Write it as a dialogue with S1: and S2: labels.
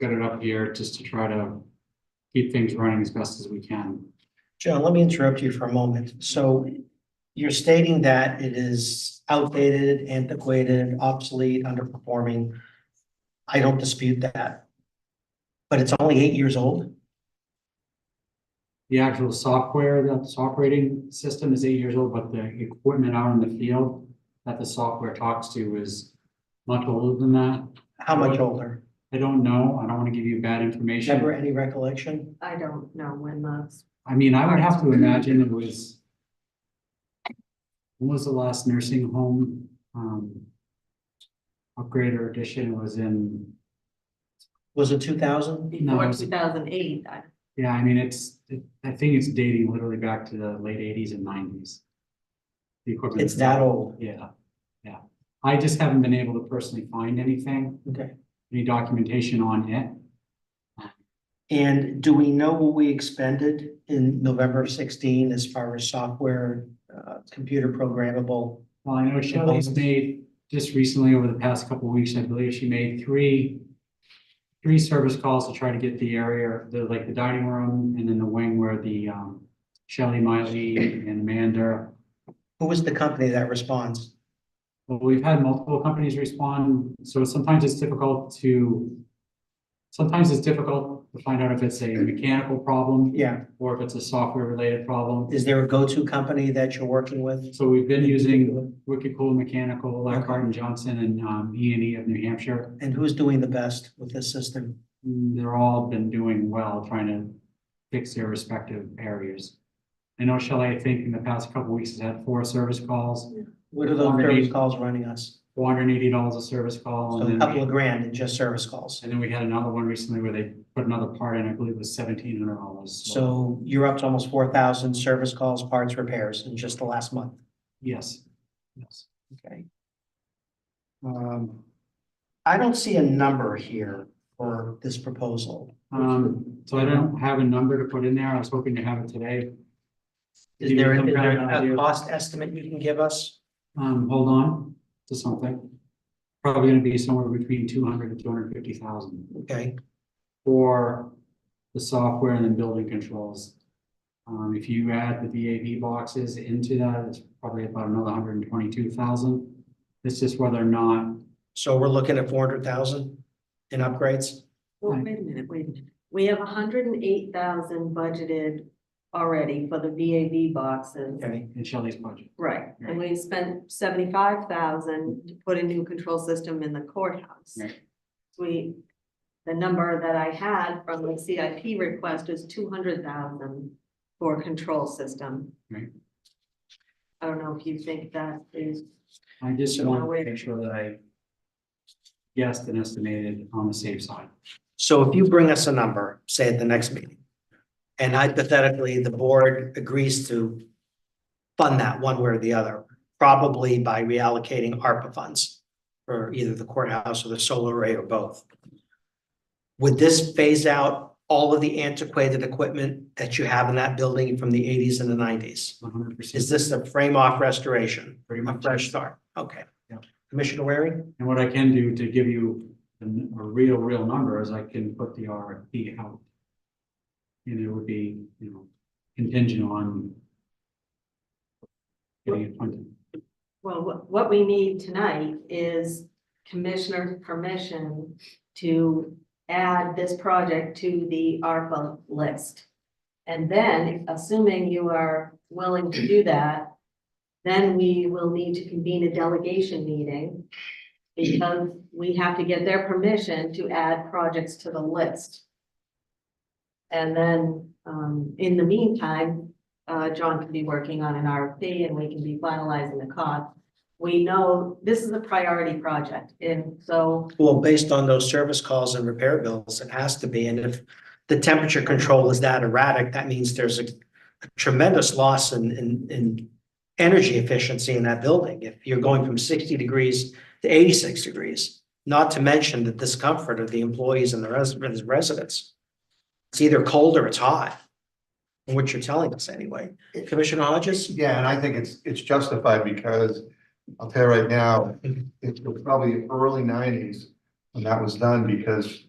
S1: get it up here just to try to keep things running as best as we can.
S2: John, let me interrupt you for a moment. So you're stating that it is outdated, antiquated, obsolete, underperforming. I don't dispute that. But it's only eight years old?
S1: The actual software that's operating system is eight years old, but the equipment out in the field that the software talks to is much older than that.
S2: How much older?
S1: I don't know. I don't want to give you bad
S2: Remember
S1: information.
S2: any recollection?
S3: I don't know when that's,
S1: I mean, I would have to imagine it was when was the last nursing home, um, upgrade or addition was in
S2: Was it two thousand?
S1: No, it
S3: before
S1: was-
S3: two thousand eight, I,
S1: Yeah, I mean, it's, it- I think it's dating literally back to the late eighties and nineties. The equipment.
S2: It's that old.
S1: Yeah, yeah. I just haven't been able to personally find anything,
S2: Okay.
S1: any documentation on it.
S2: And do we know what we expended in November of sixteen as far as software, uh, computer programmable?
S1: Well, I know Shelley's made, just recently over the past couple of weeks, I believe she made three, three service calls to try to get the area, the, like the dining room and then the wing where the, um, Shelley, Miley and Amanda
S2: Who was the company that responds?
S1: Well, we've had multiple companies respond, so sometimes it's difficult to. Sometimes it's difficult to find out if it's a mechanical problem
S2: Yeah,
S1: or if it's a software related problem.
S2: is there a go-to company that you're working with?
S1: So we've been using Wicked Cool Mechanical, Lockhart and Johnson and um E and E of New Hampshire.
S2: And who's doing the best with this system?
S1: Mm, They're all been doing well, trying to fix their respective areas. I know Shelley, I think in the past couple of weeks has had four service calls,
S2: What are those
S1: Already.
S2: service calls running us?
S1: four hundred and eighty dollars a service call. and
S2: So a
S1: then
S2: couple of grand in just service calls.
S1: And then we had another one recently where they put another part in, I believe it was seventeen hundred dollars.
S2: So you're up to almost four thousand service calls, parts, repairs in just the last month,
S1: Yes, yes.
S2: okay? Um, I don't see a number here for this proposal.
S1: Um, so I don't have a number to put in there. I was hoping to have it today.
S2: Is
S1: Give you
S2: there,
S1: some
S2: is
S1: kind of
S2: there
S1: idea.
S2: a cost estimate you can give us?
S1: Um, hold on to something. Probably gonna be somewhere between two hundred and two hundred and fifty thousand
S2: Okay,
S1: for the software and then building controls. Um, if you add the VAV boxes into that, it's probably about another hundred and twenty-two thousand. It's just whether or not
S2: so we're looking at four hundred thousand in upgrades?
S3: well,
S1: Right.
S3: wait a minute, wait a minute. We have hundred and eight thousand budgeted already for the VAV boxes.
S2: Okay,
S1: in Shelley's budget.
S3: Right,
S1: Right.
S3: and we spent seventy-five thousand to put a new control system in the courthouse.
S1: Right.
S3: We, the number that I had from the CIP request is two hundred thousand for a control system.
S1: Right.
S3: I don't know if you think that is,
S1: I just
S3: So-
S1: want to make sure that I guessed and estimated on the safe side.
S2: So if you bring us a number, say at the next meeting, and hypothetically, the board agrees to fund that one way or the other, probably by reallocating ARPA funds for either the courthouse or the solar array or both. Would this phase out all of the antiquated equipment that you have in that building from the eighties and the nineties?
S1: One hundred percent.
S2: Is this a frame off restoration,
S1: Pretty
S2: a
S1: much.
S2: fresh start? Okay.
S1: Yeah.
S2: Commissioner Waring?
S1: And what I can do to give you a n- a real, real number is I can put the RFP out. And it would be, you know, contingent on getting it funded.
S3: well, what, what we need tonight is commissioner's permission to add this project to the ARPA list. And then, assuming you are willing to do that, then we will need to convene a delegation meeting because we have to get their permission to add projects to the list. And then, um, in the meantime, uh, John can be working on an RFP and we can be finalizing the cost. We know this is a priority project, and so
S2: Well, based on those service calls and repair bills, it has to be, and if the temperature control is that erratic, that means there's a tremendous loss in, in, in energy efficiency in that building, if you're going from sixty degrees to eighty-six degrees, not to mention the discomfort of the employees and the residents, residents. It's either cold or it's hot, from what you're telling us anyway. Commissioner Hodges?
S4: Yeah, and I think it's, it's justified because I'll tell you right now, it was probably early nineties when that was done because